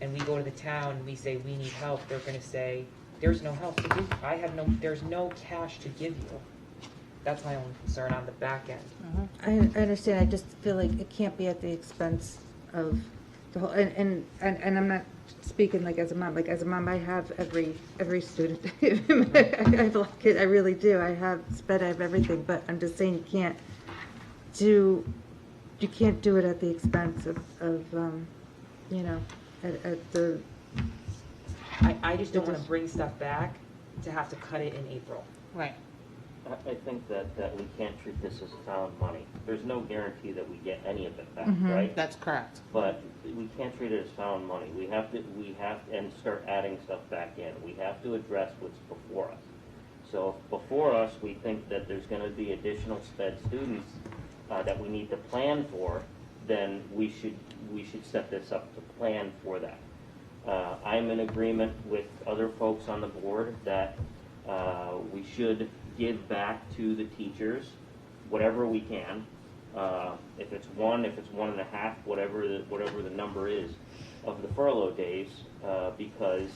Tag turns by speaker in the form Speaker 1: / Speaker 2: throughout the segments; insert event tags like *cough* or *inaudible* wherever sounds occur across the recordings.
Speaker 1: and we go to the town, and we say, we need help, they're gonna say, there's no help to give, I have no, there's no cash to give you. That's my only concern on the back end.
Speaker 2: I, I understand, I just feel like it can't be at the expense of the whole, and, and, and, and I'm not speaking like as a mom, like as a mom, I have every, every student. *laughs* I have a lot of kids, I really do, I have sped, I have everything, but I'm just saying you can't do, you can't do it at the expense of, of, um, you know, at, at the,
Speaker 1: I, I just don't
Speaker 2: It
Speaker 1: wanna
Speaker 2: just-
Speaker 1: bring stuff back to have to cut it in April.
Speaker 3: Right.
Speaker 4: I, I think that, that we can't treat this as town money. There's no guarantee that we get any of it back,
Speaker 2: Mhm.
Speaker 4: right?
Speaker 3: That's correct.
Speaker 4: But we can't treat it as found money. We have to, we have, and start adding stuff back in. We have to address what's before us. So if before us, we think that there's gonna be additional sped students, uh, that we need to plan for, then we should, we should set this up to plan for that. Uh, I'm in agreement with other folks on the board that, uh, we should give back to the teachers whatever we can. Uh, if it's one, if it's one and a half, whatever the, whatever the number is of the furlough days, uh, because,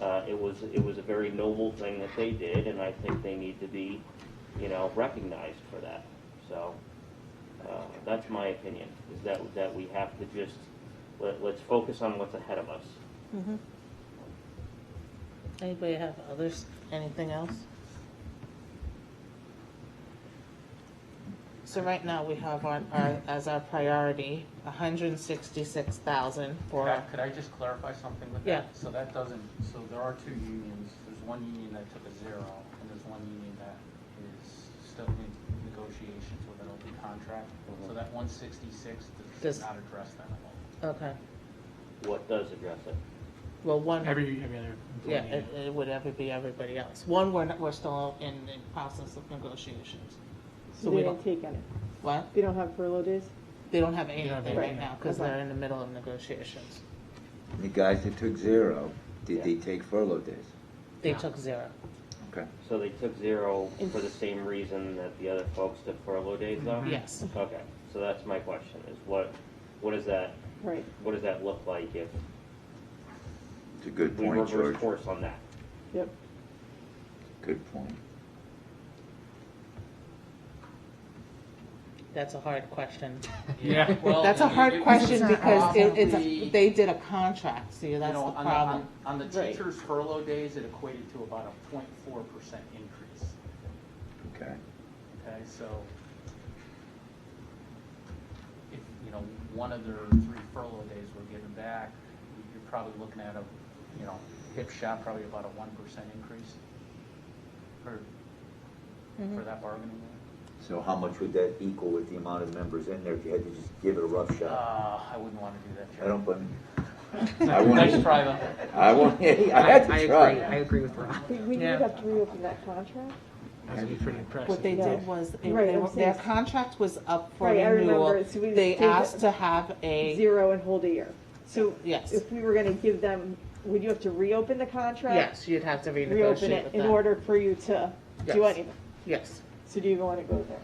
Speaker 4: uh, it was, it was a very noble thing that they did, and I think they need to be, you know, recognized for that. So, uh, that's my opinion, is that, that we have to just, let, let's focus on what's ahead of us.
Speaker 3: Mm-hmm. Anybody have others, anything else? So right now, we have on, our, as our priority, hundred and sixty-six thousand
Speaker 5: Could I-
Speaker 3: for,
Speaker 5: Could I just clarify something with that?
Speaker 3: Yeah.
Speaker 5: So that doesn't, so there are two unions, there's one union that took a zero, and there's one union that is still in negotiations with an open contract. So that one sixty-six does
Speaker 3: Does-
Speaker 5: not address that at all.
Speaker 3: okay,
Speaker 4: What does address it?
Speaker 3: well, one,
Speaker 5: Every, every other
Speaker 3: yeah,
Speaker 5: employee.
Speaker 3: it, it would ever be everybody else. One, we're, not- we're still in the process of negotiations. So
Speaker 6: So
Speaker 3: we
Speaker 6: they
Speaker 3: don't,
Speaker 6: don't take any.
Speaker 3: what?
Speaker 6: They don't have furlough days?
Speaker 3: They don't have
Speaker 5: don't have
Speaker 3: anything
Speaker 5: anything.
Speaker 3: right now, because
Speaker 6: Okay.
Speaker 3: they're in the middle of negotiations.
Speaker 7: The guys that took zero, did they
Speaker 4: Yeah.
Speaker 7: take furlough days?
Speaker 3: They took zero.
Speaker 7: Okay.
Speaker 4: So they took zero for the same reason that the other folks took furlough days though?
Speaker 3: Yes.
Speaker 4: Okay, so that's my question, is what, what does that,
Speaker 6: Right.
Speaker 4: what does that look like if
Speaker 7: It's a good
Speaker 4: we
Speaker 7: point,
Speaker 4: reverse
Speaker 7: George.
Speaker 4: course on that?
Speaker 6: Yep.
Speaker 7: Good point.
Speaker 3: That's a hard question.
Speaker 5: Yeah. *laughs* well,
Speaker 3: That's a
Speaker 5: it- it-
Speaker 3: hard
Speaker 5: it's
Speaker 3: question because it, it's,
Speaker 5: probably-
Speaker 3: a- they did a contract, see,
Speaker 5: You
Speaker 3: that's
Speaker 5: know,
Speaker 3: the
Speaker 5: on
Speaker 3: problem.
Speaker 5: On on the
Speaker 3: Right.
Speaker 5: teachers' furlough days, it equated to about a point four percent increase,
Speaker 7: Okay.
Speaker 5: okay, so. If, you know, one of their three furlough days were given back, you're probably looking at a, you know, hip shot, probably about a one percent increase. For,
Speaker 6: Mm-hmm.
Speaker 3: Mm-hmm.
Speaker 5: for that bargaining unit.
Speaker 7: So how much would that equal with the amount of members in there if you had to just give it a rough shot?
Speaker 5: Uh, I wouldn't wanna do that,
Speaker 7: I
Speaker 5: Jerry.
Speaker 7: don't blame you. I want,
Speaker 5: Nice try though.
Speaker 7: I want, *laughs* I had to
Speaker 1: agree, I
Speaker 7: try.
Speaker 1: agree with Rob.
Speaker 6: We, we would
Speaker 3: Yeah.
Speaker 6: have to reopen that contract?
Speaker 5: That'd be pretty impressive.
Speaker 3: What they
Speaker 6: Yeah.
Speaker 3: did was, they-
Speaker 6: Right,
Speaker 3: they
Speaker 6: I'm
Speaker 3: were- their
Speaker 6: saying-
Speaker 3: contract was up for
Speaker 6: Right, I remember,
Speaker 3: renewal.
Speaker 6: it's- we
Speaker 3: They
Speaker 6: did-
Speaker 3: asked to have a,
Speaker 6: Zero and hold a year. So
Speaker 3: yes,
Speaker 6: if we were gonna give them, would you have to reopen the contract?
Speaker 3: yes, you'd have to
Speaker 6: Reopen
Speaker 3: renegotiate
Speaker 6: it
Speaker 3: with
Speaker 6: in
Speaker 3: them.
Speaker 6: order for you to do
Speaker 3: Yes.
Speaker 6: anything?
Speaker 3: Yes.
Speaker 6: So do you even wanna go there?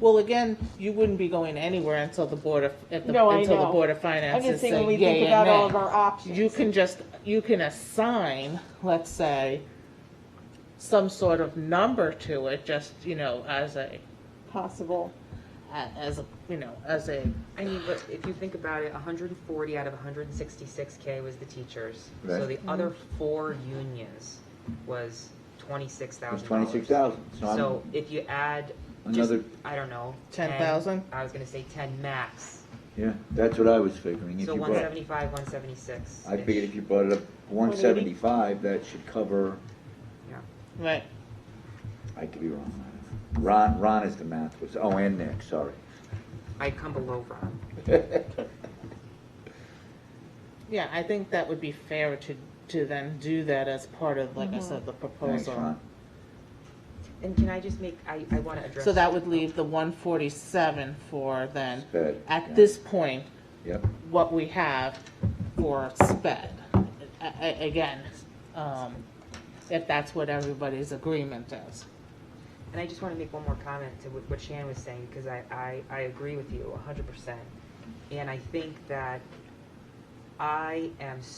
Speaker 3: Well, again, you wouldn't be going anywhere until the Board of, at the-
Speaker 6: No, I
Speaker 3: until the
Speaker 6: know.
Speaker 3: Board of
Speaker 6: I'm
Speaker 3: Finances
Speaker 6: just
Speaker 3: say
Speaker 6: saying, when we
Speaker 3: yay and
Speaker 6: think about all
Speaker 3: nay.
Speaker 6: of our options.
Speaker 3: you can just, you can assign, let's say, some sort of number to it, just, you know, as a,
Speaker 6: Possible.
Speaker 3: a- as, a you know, as a,
Speaker 1: I mean, but if you think about it, hundred and forty out of hundred and sixty-six K was the teachers. So
Speaker 7: Right.
Speaker 1: the other four unions was twenty-six
Speaker 7: It was
Speaker 1: thousand dollars.
Speaker 7: twenty-six thousand, so
Speaker 1: So if you add just,
Speaker 7: Another-
Speaker 1: I don't know.
Speaker 3: 10,000?
Speaker 1: I was gonna say ten max.
Speaker 7: I'm, yeah, that's what I was figuring. If
Speaker 1: So
Speaker 7: you
Speaker 1: one
Speaker 7: brought,
Speaker 1: seventy-five, one seventy-six.
Speaker 7: I figured if you brought it up one
Speaker 6: 180?
Speaker 7: seventy-five, that should cover,
Speaker 3: right,
Speaker 7: I could be wrong. Ron, Ron is the math, was, oh, and Nick, sorry. *laughs*
Speaker 1: I come below Ron.
Speaker 3: yeah, I think that would be fair to, to then do that as part of, like I said, the
Speaker 7: Thanks,
Speaker 3: proposal.
Speaker 7: Ron.
Speaker 1: And can I just make, I, I wanna address.
Speaker 3: So that would leave the one forty-seven for then,
Speaker 7: Sped, yeah.
Speaker 3: at this point,
Speaker 7: Yep.
Speaker 3: what we have for sped. A- a- Again, um, if that's what everybody's agreement is.
Speaker 1: And I just want to make one more comment to what what Shannon was saying, because I, I, I agree with you hundred percent. And I think that I am